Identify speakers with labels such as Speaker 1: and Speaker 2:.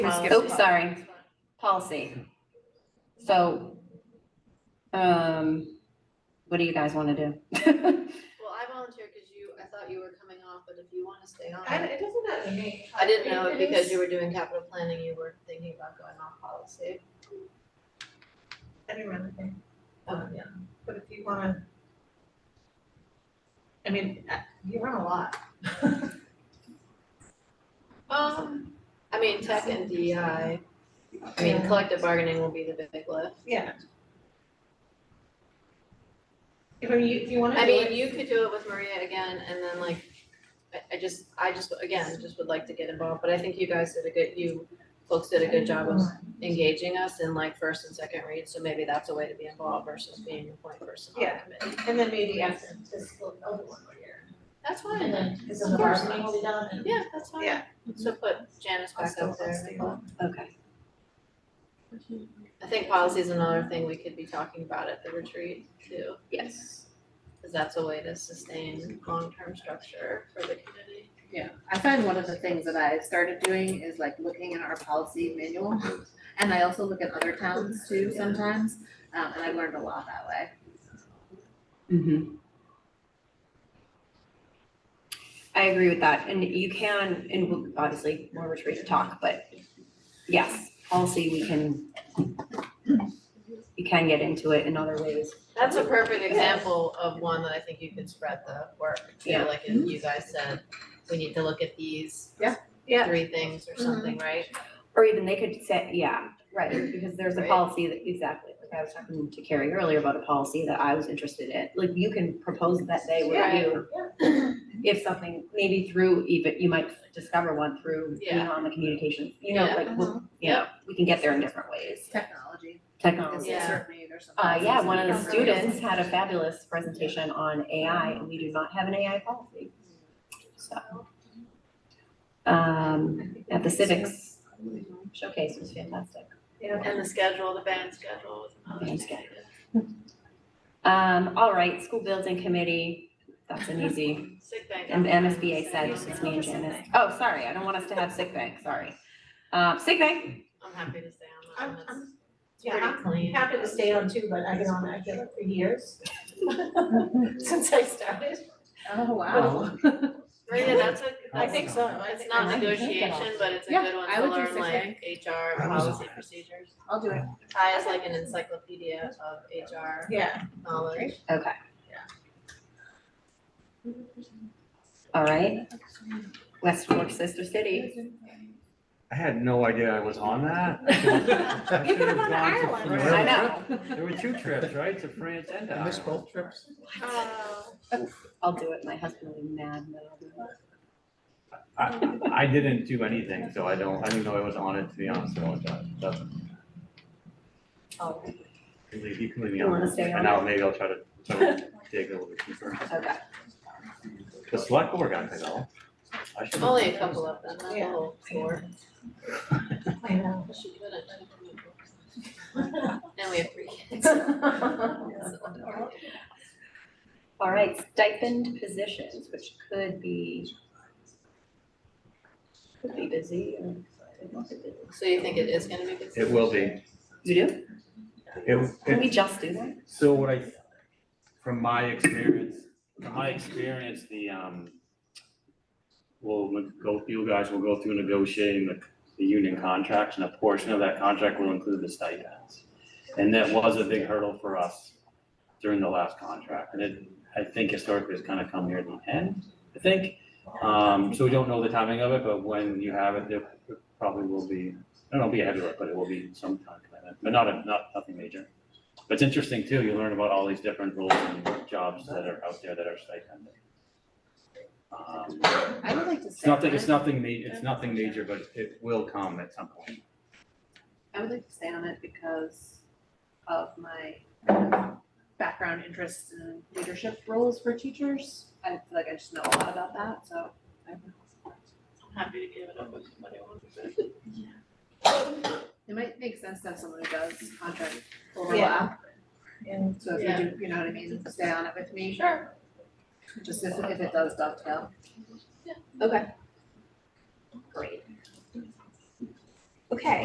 Speaker 1: Um,
Speaker 2: Oh, sorry, policy. So, um, what do you guys want to do?
Speaker 3: Well, I volunteer because you, I thought you were coming off, but if you want to stay on.
Speaker 1: I, it doesn't matter to me.
Speaker 3: I didn't know it because you were doing capital planning, you were thinking about going off policy.
Speaker 1: I didn't really think,
Speaker 3: Um, yeah.
Speaker 1: but if you wanna. I mean, uh, you run a lot.
Speaker 3: Um, I mean, tech and DI, I mean,
Speaker 1: Yeah.
Speaker 3: collective bargaining will be the big lift.
Speaker 1: Yeah. If I mean, you, if you wanna do
Speaker 3: I mean,
Speaker 1: it,
Speaker 3: you could do it with Maria again and then like, I, I just, I just, again, just would like to get involved, but I think you guys did a good, you folks did a good job of engaging us in like first and second read, so maybe that's a way to be involved versus being a point person on the
Speaker 1: Yeah.
Speaker 3: committee.
Speaker 1: and then maybe after fiscal, over one more year.
Speaker 3: That's
Speaker 1: And
Speaker 3: fine,
Speaker 1: then, cause then
Speaker 3: Of
Speaker 1: the
Speaker 3: course.
Speaker 1: bargaining will be done and.
Speaker 3: yeah, that's fine.
Speaker 1: Yeah.
Speaker 3: So put Janice back up there.
Speaker 2: Okay,
Speaker 3: I think policy is another thing we could be talking about at the retreat too,
Speaker 2: yes.
Speaker 3: because that's a way to sustain long-term structure for the community.
Speaker 4: I find one of the things that I started doing is like looking at our policy manual. And I also look at other towns too sometimes, um, and I've learned a lot that way.
Speaker 2: Mhm. I agree with that, and you can, and we'll- obviously, more retreat to talk, but yes, policy, we can, you can get into it in other ways.
Speaker 3: That's a perfect example of one that I think you could spread the work
Speaker 2: Yeah.
Speaker 3: to, like if you guys said, we need to look at these
Speaker 4: Yeah.
Speaker 1: Yeah.
Speaker 3: three things or something, right?
Speaker 2: Or even they could say, yeah, right, because there's a
Speaker 3: Right.
Speaker 2: policy that, exactly, like I was talking to Carrie earlier about a policy that I was interested in. Like you can propose that they review if something, maybe through even, you might discover one through being
Speaker 3: Yeah.
Speaker 2: on the communications, you know,
Speaker 3: Yeah. Uh-huh.
Speaker 2: like, we'll- you know, we can get there in different ways.
Speaker 4: Technology is
Speaker 2: Technology.
Speaker 3: Yeah.
Speaker 4: certainly there's some.
Speaker 2: Oh, Uh, yeah,
Speaker 4: policies
Speaker 2: one of
Speaker 4: that
Speaker 2: the
Speaker 4: are really-
Speaker 2: students had a fabulous presentation on AI and we do not have an AI policy. So. Um, at the civics showcase was fantastic.
Speaker 3: And the schedule, the band schedule was another
Speaker 2: Band
Speaker 3: thing.
Speaker 2: schedule. Um, all right, school building committee, that's an easy,
Speaker 3: Sick bank.
Speaker 2: and MSBA said, it's just me and Janice. Oh, sorry, I don't want us to have sick bank, sorry. Um, sick bank,
Speaker 3: I'm happy to stay on
Speaker 1: I'm,
Speaker 3: that one,
Speaker 1: I'm
Speaker 3: it's
Speaker 1: yeah,
Speaker 3: pretty clean.
Speaker 1: happy to stay on too, but I've been on that for years. Since I started.
Speaker 4: Oh, wow.
Speaker 3: Maria, that's a,
Speaker 1: I think so. I
Speaker 3: It's
Speaker 1: think-
Speaker 3: not
Speaker 2: I like that.
Speaker 3: negotiation, but it's a
Speaker 4: Yeah,
Speaker 3: good one
Speaker 4: I
Speaker 3: to
Speaker 4: would do
Speaker 3: learn
Speaker 4: six
Speaker 3: like HR
Speaker 5: I was on
Speaker 3: policy
Speaker 5: it.
Speaker 3: procedures.
Speaker 4: I'll do it.
Speaker 3: Ty is like an encyclopedia of HR
Speaker 1: Yeah,
Speaker 3: knowledge.
Speaker 2: okay.
Speaker 1: Yeah.
Speaker 2: All right. West Fork Sister City,
Speaker 5: I had no idea I was on that. I should've- I
Speaker 4: You could have
Speaker 5: should've gone
Speaker 4: gone to
Speaker 5: to
Speaker 4: Ireland.
Speaker 5: France.
Speaker 2: I know,
Speaker 5: There were two trips, right, to France and to
Speaker 6: I missed
Speaker 5: Ireland.
Speaker 6: both trips.
Speaker 3: Uh,
Speaker 1: Oh.
Speaker 2: I'll do it, my husband will be mad, but I'll do it.
Speaker 5: I, I didn't do anything, so I don't, I didn't know I was on it, to be honest, so that's,
Speaker 3: Oh.
Speaker 5: you can leave- you can leave me
Speaker 2: You
Speaker 5: on
Speaker 2: wanna
Speaker 5: it.
Speaker 2: stay on
Speaker 5: And now maybe I'll try to, try to dig a little bit deeper.
Speaker 2: Okay,
Speaker 5: The select board got it all. I should.
Speaker 3: Only a couple of them, not the
Speaker 1: Yeah.
Speaker 3: whole four.
Speaker 1: I know.
Speaker 3: She could have. And we have three kids.
Speaker 2: all right, stipend positions, which could be could be busy or could not be busy.
Speaker 3: So you think it is gonna be good?
Speaker 5: It will be.
Speaker 2: You do?
Speaker 5: It,
Speaker 2: Can we
Speaker 5: it,
Speaker 2: just do that?
Speaker 5: so what I, from my experience, from my experience, the, um, we'll ne- go, you guys will go through negotiating the, the union contracts, and a portion of that contract will include the stipends. And that was a big hurdle for us during the last contract, and it, I think historically it's kind of come near the end, I think. Um, so we don't know the timing of it, but when you have it, there probably will be, I don't know, be ahead of it, but it will be some time commitment, but not, a not, nothing major. But it's interesting too, you learn about all these different roles and jobs that are out there that are stipended. Um,
Speaker 4: I would like to
Speaker 5: it's
Speaker 4: stay on
Speaker 5: nothing, it's
Speaker 4: it.
Speaker 5: nothing ma- it's nothing major, but it will come at some point.
Speaker 4: I would like to stay on it because of my background interest in leadership roles for teachers. I feel like I just know a lot about that, so I
Speaker 3: I'm happy to give it up if somebody wants it.
Speaker 4: It might make sense to have someone who does contract overlap,
Speaker 1: And
Speaker 4: so if you do, you know what I mean, stay on it with me. Sure. Just if, if it does dovetail.
Speaker 2: Okay. Great. Okay.